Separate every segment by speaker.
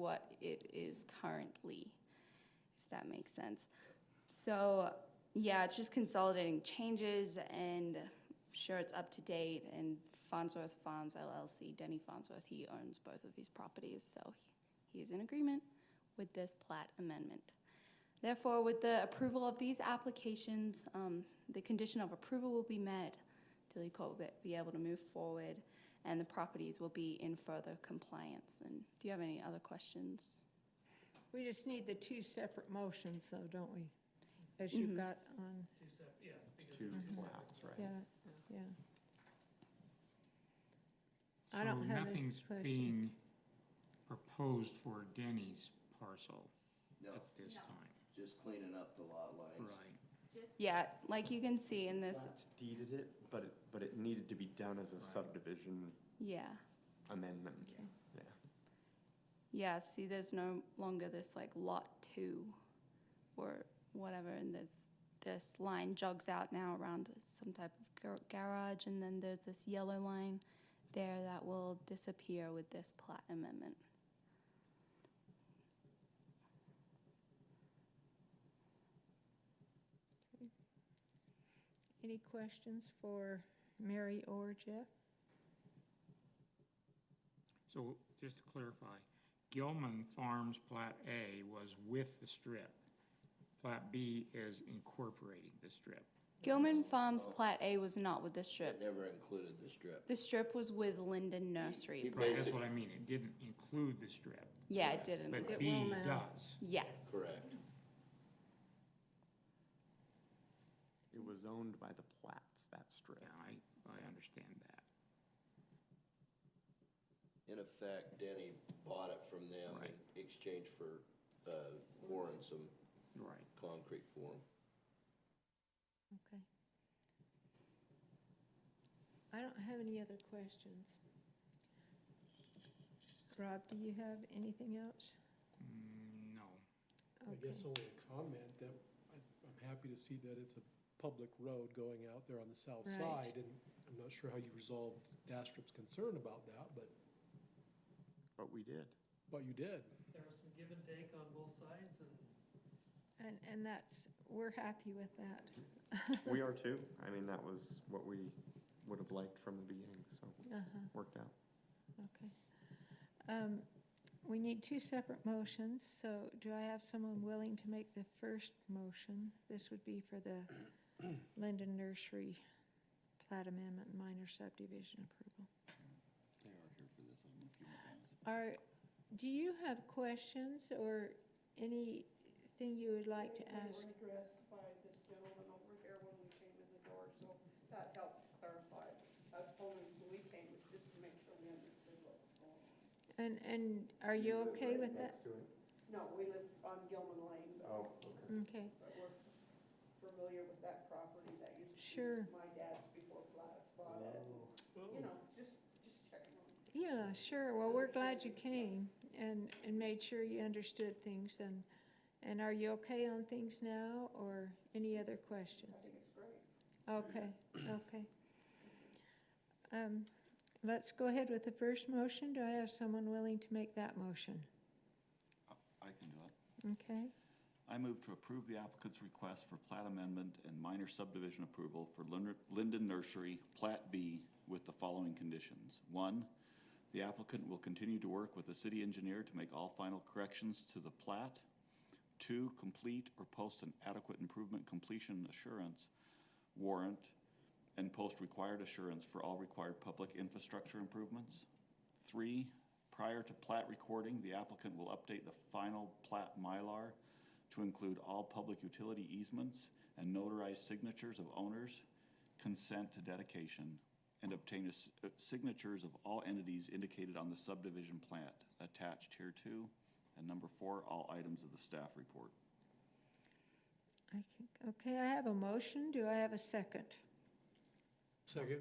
Speaker 1: what it is currently, if that makes sense. So, yeah, it's just consolidating changes and sure it's up to date. And Farnsworth Farms LLC, Denny Farnsworth, he owns both of these properties, so he- he is in agreement with this plat amendment. Therefore, with the approval of these applications, um, the condition of approval will be met. Dilly Court will be able to move forward, and the properties will be in further compliance. And do you have any other questions?
Speaker 2: We just need the two separate motions though, don't we? As you've got on,
Speaker 3: It's two plats, right?
Speaker 2: yeah, yeah. I don't have any
Speaker 4: So
Speaker 2: question.
Speaker 4: nothing's being proposed for Denny's parcel
Speaker 5: No,
Speaker 4: at this time,
Speaker 5: just cleaning up the lot lines.
Speaker 4: right?
Speaker 1: Yeah, like you can see in this,
Speaker 3: Plats deeded it, but it, but it needed to be done as a subdivision
Speaker 1: yeah,
Speaker 3: amendment. Yeah.
Speaker 1: yeah, see, there's no longer this like lot two or whatever, and this, this line jogs out now around some type of gar- garage, and then there's this yellow line there that will disappear with this plat amendment.
Speaker 2: Any questions for Mary or Jeff?
Speaker 4: So just to clarify, Gilman Farms Plat A was with the strip. Plat B is incorporating the strip.
Speaker 1: Gilman Farms Plat A was not with the strip.
Speaker 5: Never included the strip.
Speaker 1: The strip was with Linden
Speaker 5: He
Speaker 1: Nursery.
Speaker 4: Right, that's
Speaker 5: basically,
Speaker 4: what I mean, it didn't include the strip,
Speaker 1: Yeah, it didn't.
Speaker 4: but
Speaker 2: It will
Speaker 4: B
Speaker 2: now.
Speaker 4: does.
Speaker 1: Yes.
Speaker 5: correct.
Speaker 3: It was owned by the plats, that strip.
Speaker 4: Yeah, I, I understand that.
Speaker 5: In effect, Denny bought it from them in
Speaker 4: Right.
Speaker 5: exchange for, uh, Warren some
Speaker 4: Right.
Speaker 5: concrete for him.
Speaker 2: Okay. I don't have any other questions. Rob, do you have anything else?
Speaker 4: Mm, No.
Speaker 6: I
Speaker 2: Okay.
Speaker 6: guess only a comment that I- I'm happy to see that it's a public road going out there on the south
Speaker 2: Right.
Speaker 6: side. And I'm not sure how you resolved Dastrup's concern about that, but,
Speaker 3: But we did.
Speaker 6: but you did.
Speaker 7: there was some give and take on both sides, and
Speaker 2: And, and that's, we're happy with that.
Speaker 3: We are too. I mean, that was what we would have liked from the beginning, so
Speaker 2: Uh-huh.
Speaker 3: worked out.
Speaker 2: Um, We need two separate motions, so do I have someone willing to make the first motion? This would be for the Linden Nursery plat amendment minor subdivision approval. Are, do you have questions or anything you would like to ask?
Speaker 8: They were addressed by this gentleman over here when we came in the door, so that helped clarify. I was told when we came, it's just to make sure we understood what was going on.
Speaker 2: And, and are you okay with that?
Speaker 8: No, we live on Gilman Lane, but
Speaker 3: Oh,
Speaker 2: Okay,
Speaker 8: but we're familiar with that property that used
Speaker 2: Sure.
Speaker 8: to be my dad's before Gladys bought it. You know, just, just checking on.
Speaker 2: yeah, sure. Well, we're glad you came and, and made sure you understood things and, and are you okay on things now or any other questions?
Speaker 8: I think it's great.
Speaker 2: Okay, okay. Um, Let's go ahead with the first motion. Do I have someone willing to make that motion?
Speaker 9: I can do it.
Speaker 2: Okay,
Speaker 9: I move to approve the applicant's request for plat amendment and minor subdivision approval for Lin- Linden Nursery, Plat B, with the following conditions. One, the applicant will continue to work with the city engineer to make all final corrections to the plat. Two, complete or post an adequate improvement completion assurance warrant and post required assurance for all required public infrastructure improvements. Three, prior to plat recording, the applicant will update the final plat Mylar to include all public utility easements and notarized signatures of owners, consent to dedication, and obtain a s- uh, signatures of all entities indicated on the subdivision plat attached here to. And number four, all items of the staff report.
Speaker 2: I think, okay, I have a motion. Do I have a second?
Speaker 6: Second.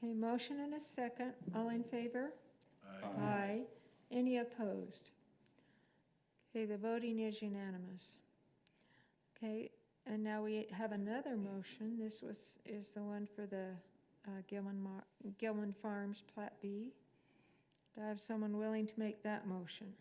Speaker 2: Okay, motion and a second. All in favor? Aye. Any opposed? Okay, the voting is unanimous. Okay, and now we have another motion. This was, is the one for the uh, Gilman Mar, Gilman Farms Plat B. Do I have someone willing to make that motion?